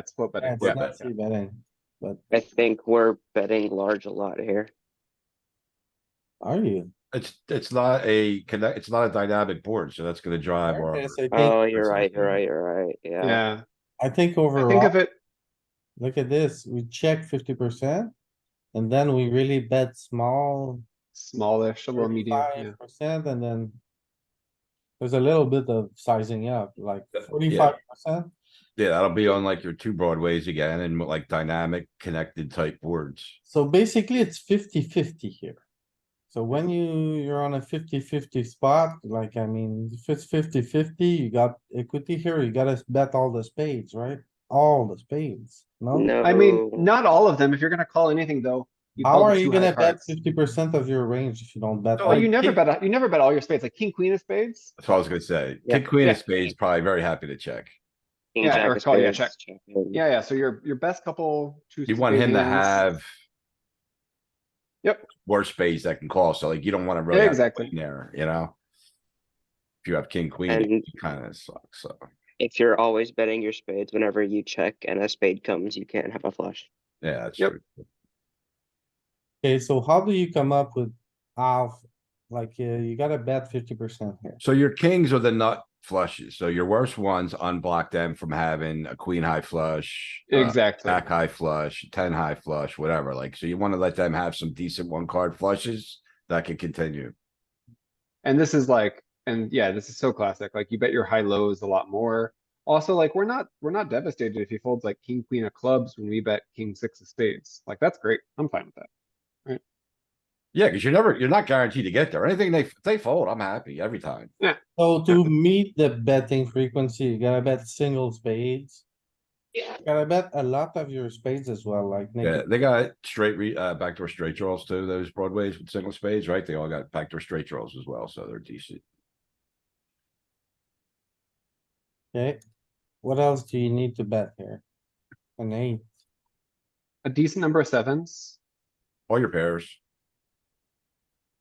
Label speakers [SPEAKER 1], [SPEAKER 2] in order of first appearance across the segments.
[SPEAKER 1] That's what
[SPEAKER 2] Yeah,
[SPEAKER 1] better.
[SPEAKER 2] it's
[SPEAKER 1] Yeah.
[SPEAKER 2] not too bad, eh? But
[SPEAKER 3] I think we're betting large a lot here.
[SPEAKER 2] are you?
[SPEAKER 4] It's, it's not a connect, it's not a dynamic board, so that's gonna drive our.
[SPEAKER 2] Okay, so I think-
[SPEAKER 3] Oh, you're right, you're right, you're right, yeah.
[SPEAKER 1] Yeah,
[SPEAKER 2] I think
[SPEAKER 1] I think of
[SPEAKER 2] overall,
[SPEAKER 1] it,
[SPEAKER 2] look at this, we check fifty percent. And then we really bet small,
[SPEAKER 1] smallish, a little medium, yeah.
[SPEAKER 2] thirty-five percent, and then. There's a little bit of sizing up, like
[SPEAKER 4] Yeah.
[SPEAKER 2] forty-five percent.
[SPEAKER 4] Yeah, that'll be on like your two broadways again and like dynamic connected type boards.
[SPEAKER 2] So basically, it's 50-50 here. So when you, you're on a 50-50 spot, like, I mean, if it's 50-50, you got equity here, you gotta bet all the spades, right? All the spades, no?
[SPEAKER 3] No.
[SPEAKER 1] I mean, not all of them. If you're gonna call anything though.
[SPEAKER 2] How
[SPEAKER 1] call the
[SPEAKER 2] are you
[SPEAKER 1] two high
[SPEAKER 2] gonna bet
[SPEAKER 1] cards.
[SPEAKER 2] fifty percent of your range if you don't
[SPEAKER 3] Oh,
[SPEAKER 2] bet?
[SPEAKER 1] Well,
[SPEAKER 2] all-
[SPEAKER 1] you never
[SPEAKER 4] king-
[SPEAKER 1] bet, a- you never bet all your spades, like king, queen of spades.
[SPEAKER 4] That's what I was gonna say.
[SPEAKER 3] Yeah,
[SPEAKER 4] King, queen
[SPEAKER 1] yeah.
[SPEAKER 4] of spades, probably very happy to check.
[SPEAKER 3] King
[SPEAKER 1] yeah,
[SPEAKER 3] jack
[SPEAKER 1] or
[SPEAKER 3] of
[SPEAKER 1] call, yeah,
[SPEAKER 3] spades,
[SPEAKER 1] check.
[SPEAKER 3] in.
[SPEAKER 1] Yeah, yeah, so your, your best couple. two
[SPEAKER 4] Mm. You want him to
[SPEAKER 1] spades.
[SPEAKER 4] have.
[SPEAKER 1] Yep.
[SPEAKER 4] Worse spades that can call, so like you don't wanna really
[SPEAKER 1] Yeah,
[SPEAKER 4] have a
[SPEAKER 1] exactly.
[SPEAKER 4] queen there, you know? If you have king, queen,
[SPEAKER 3] And-
[SPEAKER 4] it kinda sucks, so,
[SPEAKER 3] If you're always betting your spades, whenever you check and a spade comes, you can't have a flush.
[SPEAKER 4] yeah, that's
[SPEAKER 1] Yep.
[SPEAKER 4] true.
[SPEAKER 2] Okay, so how do you come up with half? Like, uh, you gotta bet fifty percent here.
[SPEAKER 4] So your kings are the nut flushes, so your worst ones unblock them from having a queen high flush. uh,
[SPEAKER 1] Exactly.
[SPEAKER 4] Back high flush, ten high flush, whatever, like, so you wanna let them have some decent one card flushes that can continue.
[SPEAKER 1] And this is like, and yeah, this is so classic. Like you bet your high lows a lot more. Also, like we're not, we're not devastated if he folds like king, queen of clubs when we bet king, six of spades. Like that's great. I'm fine with that.
[SPEAKER 4] Yeah, cuz you're never, you're not guaranteed to get there. Anything they, they fold, I'm happy every time.
[SPEAKER 2] So to meet the betting frequency, you gotta bet single spades. Yeah. Gotta bet a lot of your spades as well, like. naked
[SPEAKER 4] Yeah, they got straight re, uh, backdoor straight draws too, those broadways with single spades, right? They all got backdoor straight draws as well, so they're decent.
[SPEAKER 2] Okay, what else do you need to bet here? An eight,
[SPEAKER 1] A decent number of sevens.
[SPEAKER 4] All your pairs.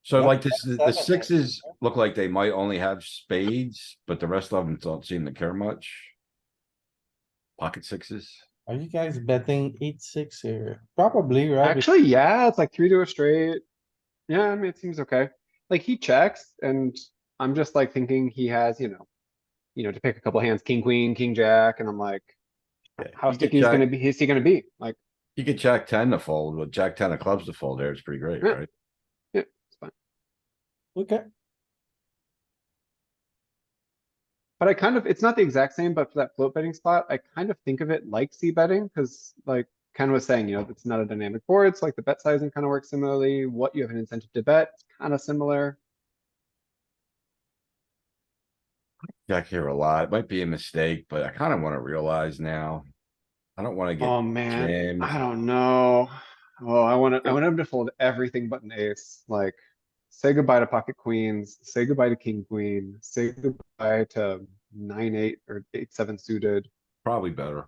[SPEAKER 4] So
[SPEAKER 2] Yeah,
[SPEAKER 4] like this, the
[SPEAKER 2] seven, I
[SPEAKER 4] the sixes look like they might only have spades, but the rest of them don't seem to care much. Pocket sixes.
[SPEAKER 2] are you guys betting eight, six here? Probably, right?
[SPEAKER 1] Actually, yeah, it's like three to a straight. Yeah, I mean, it seems okay. Like he checks and I'm just like thinking he has, you know, you know, to pick a couple hands, king, queen, king, jack, and I'm like,
[SPEAKER 4] Yeah,
[SPEAKER 1] how
[SPEAKER 4] you could
[SPEAKER 1] sticky is
[SPEAKER 4] jack-
[SPEAKER 1] gonna be, is he gonna be? Like,
[SPEAKER 4] You could jack ten to fold, with jack ten of clubs to fold there, it's pretty great,
[SPEAKER 1] Yeah.
[SPEAKER 4] right?
[SPEAKER 2] Okay,
[SPEAKER 1] But I kind of, it's not the exact same, but for that float betting spot, I kind of think of it like C betting, because like Ken was saying, you know, it's not a dynamic board, it's like the bet sizing kind of works similarly, what you have an incentive to bet, it's kind of similar.
[SPEAKER 4] Jack here a lot, it might be a mistake, but I kinda wanna realize now. I don't wanna get
[SPEAKER 1] Oh, man,
[SPEAKER 4] jammed.
[SPEAKER 1] I don't know. Oh, I want to, I want him to fold everything but an ace, like say goodbye to pocket queens, say goodbye to king, queen, say goodbye to nine, eight or eight, seven suited.
[SPEAKER 4] Probably better.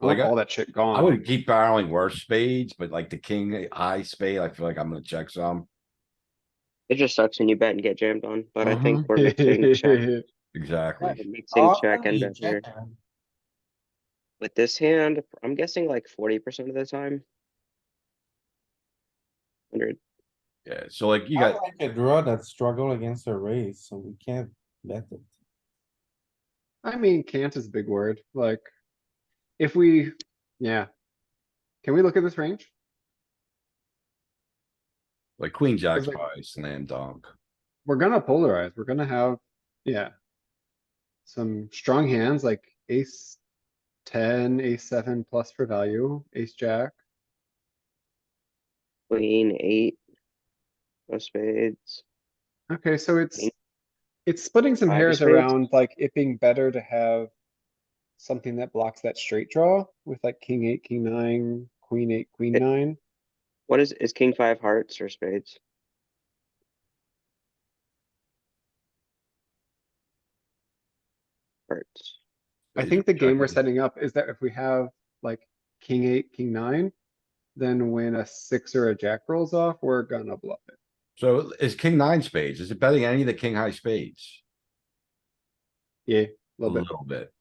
[SPEAKER 1] I want
[SPEAKER 4] Like, I-
[SPEAKER 1] all that shit
[SPEAKER 4] I
[SPEAKER 1] gone.
[SPEAKER 4] would keep barreling worse spades, but like the king high spade, I feel like I'm gonna check some.
[SPEAKER 3] It just sucks when you bet and get jammed on, but I
[SPEAKER 4] Uh-huh.
[SPEAKER 3] think we're mixing check, we're
[SPEAKER 4] Exactly.
[SPEAKER 3] mixing check
[SPEAKER 2] often
[SPEAKER 3] and
[SPEAKER 2] you
[SPEAKER 3] bet here.
[SPEAKER 2] check, man.
[SPEAKER 3] With this hand, I'm guessing like forty percent of the time. Hundred,
[SPEAKER 4] Yeah, so like you
[SPEAKER 2] I
[SPEAKER 4] got,
[SPEAKER 2] like a draw that struggle against a raise, so we can't bet it.
[SPEAKER 1] I mean, can't is a big word, like, if we, yeah. Can we look at this range?
[SPEAKER 4] like queen jack's
[SPEAKER 1] like-
[SPEAKER 4] probably slam dunk.
[SPEAKER 1] We're gonna polarize, we're gonna have, yeah. Some strong hands like ace ten, ace seven plus for value, ace jack.
[SPEAKER 3] queen, eight. No spades.
[SPEAKER 1] Okay, so it's,
[SPEAKER 3] King.
[SPEAKER 1] it's splitting some
[SPEAKER 3] Five of
[SPEAKER 1] hairs
[SPEAKER 3] spades.
[SPEAKER 1] around, like it being better to have. Something that blocks that straight draw with like king eight, king nine, queen eight, queen
[SPEAKER 3] It-
[SPEAKER 1] nine.
[SPEAKER 3] What is, is king five hearts or spades? Hearts.
[SPEAKER 1] I
[SPEAKER 4] He's
[SPEAKER 1] think the game we're
[SPEAKER 4] checking.
[SPEAKER 1] setting up is that if we have like king eight, king nine, then when a six or a jack rolls off, we're gonna bluff it.
[SPEAKER 4] So is king nine spades? Is it betting any of the king high spades?
[SPEAKER 1] Yeah,
[SPEAKER 4] A
[SPEAKER 1] little bit.
[SPEAKER 4] little bit.